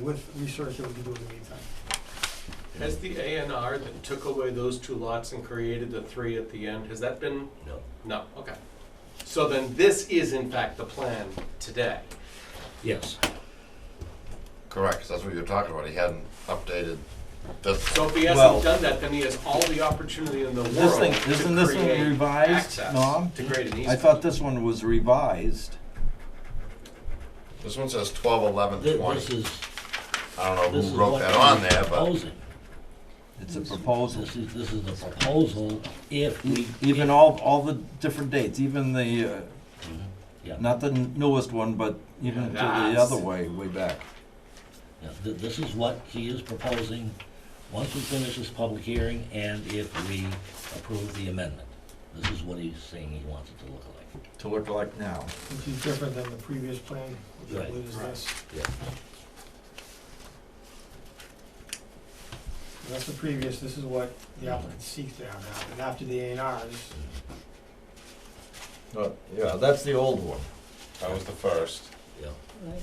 with research that we can do in the meantime. Has the A and R that took away those two lots and created the three at the end, has that been, No. no, okay. So then this is in fact the plan today. Yes. Correct, 'cause that's what you're talking about, he hadn't updated this. So if he Well- hasn't done that, then he has all the opportunity in the world This thing, isn't to this one create revised, access Norm? to create an I easement. thought this one was revised. This one says twelve eleven Th- This twenty. is, I don't know this is who wrote what that they're on there, but proposing. It's a proposal. E-, This is, this is the proposal if we. Even all, all the different dates, even the, uh, Yeah, not the newest one, but even to the Yes. other way, way back. yeah, th- this is what he is proposing, once we finish this public hearing and if we approve the amendment. This is what he's saying he wants it to look like. To look like now. Which is different than the previous plan, which I Right. believe is this. Yeah. And That's the previous, this is what the applicant seeks to have now, and after the A and R, this- Yeah, that's the old one. that was the first, Yeah.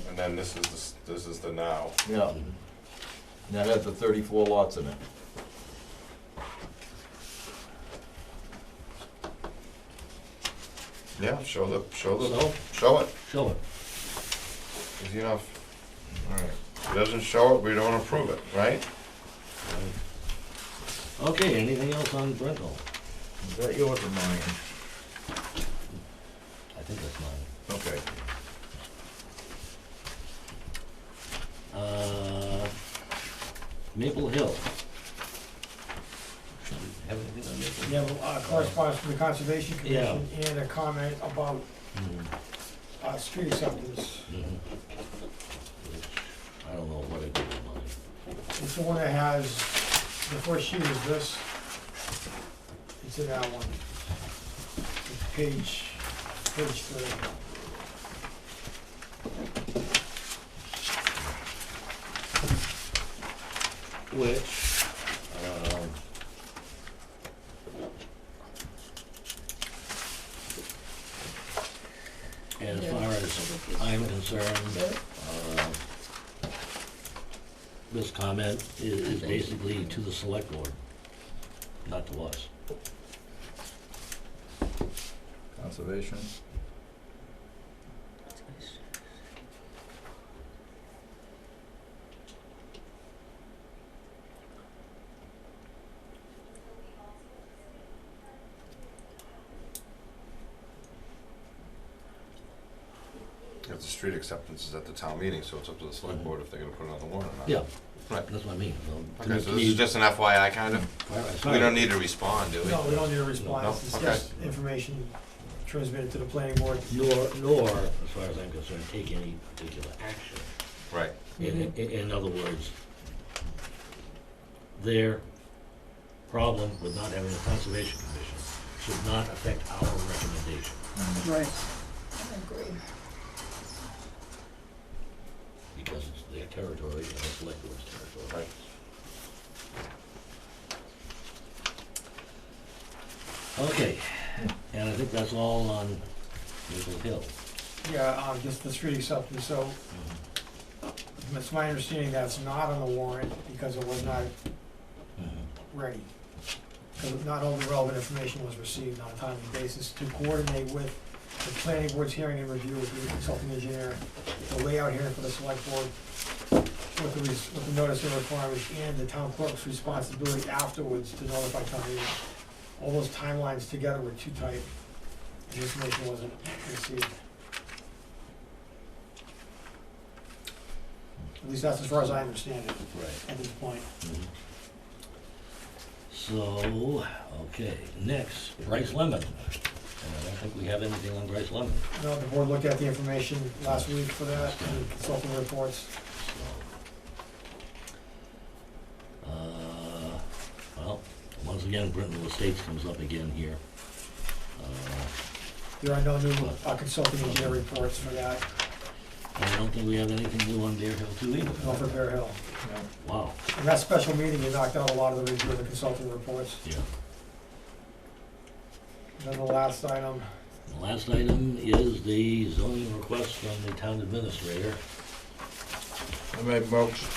and then this is, the this is the now. Yeah. Mhm. And that had the thirty-four lots in it. Yeah, show the, show the, So, show it, show it. easy enough. Alright, if he doesn't show it, we don't approve it, right? Okay, anything else on Brentwood? Is that yours or mine? I think that's mine. Okay. Uh, Maple Hill. Have anything on Maple? you have uh, correspondence from the Conservation Yeah. Commission and a comment about, Mhm, uh, street acceptance. mhm. Which, I don't know what I did with mine. It's the one that has, the first sheet is this. It's in that one. It's Page, page three. which, um, as far as I'm concerned, uh, this comment i- is basically to the select board, not to us. Conservation. If the street acceptance is at the town meeting, so it's up to the select board if they're gonna put it on the warrant or not. Yeah, Right. that's what I mean. so to Okay, so me- this is just an FYI kind of, as far we don't as- need to respond, do we? No, we don't need a No, response, it's okay. just information transmitted to the planning board. Nor, nor, as far as I'm concerned, take any particular action. Right, In, in, in other words, their problem with not having a conservation commission should not affect our recommendation, Right. because it's their territory and it's select board's territory. right. Okay, and I think that's all on Maple Hill. Yeah, um, just the street acceptance, so it's my understanding that's not on the warrant because it was not ready. Because not all the relevant information was received on a timely basis to coordinate with the planning board's hearing and review with the consulting engineer, the layout hearing for the select board, with the, res- with the notice of requirements and the town clerk's responsibility afterwards to notify town meeting. All those timelines together were too tight, and this information wasn't received. At least that's as far as I understand it Right. at this point. So, okay, next, Bryce Lemon. And I don't think we have anything on Bryce Lemon, No, the board looked at the information last week for that, and consulting reports. so. Uh, well, once again, Brittenell Estates comes up again here. Uh, There are no new uh, consulting engineer reports for that, I don't think we have anything new on Bear Hill too either. nor for Bear Hill. Wow, In that special meeting, you knocked out a lot of the review of the consulting reports. yeah. Then the last item, The last item is the zoning request from the town administrator. I made motion,